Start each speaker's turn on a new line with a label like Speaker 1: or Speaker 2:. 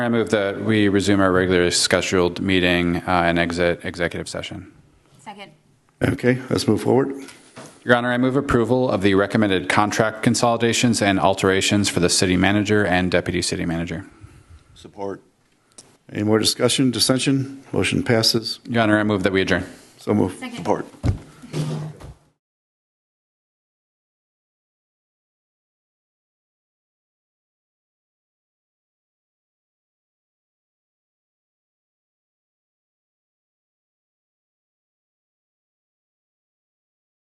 Speaker 1: I move that we resume our regularly scheduled meeting uh, and exit executive session.
Speaker 2: Second.
Speaker 3: Okay, let's move forward.
Speaker 1: Your Honor, I move approval of the recommended contract consolidations and alterations for the city manager and deputy city manager.
Speaker 3: Support. Any more discussion, dissension? Motion passes.
Speaker 1: Your Honor, I move that we adjourn.
Speaker 3: So move.
Speaker 2: Second.
Speaker 3: Support.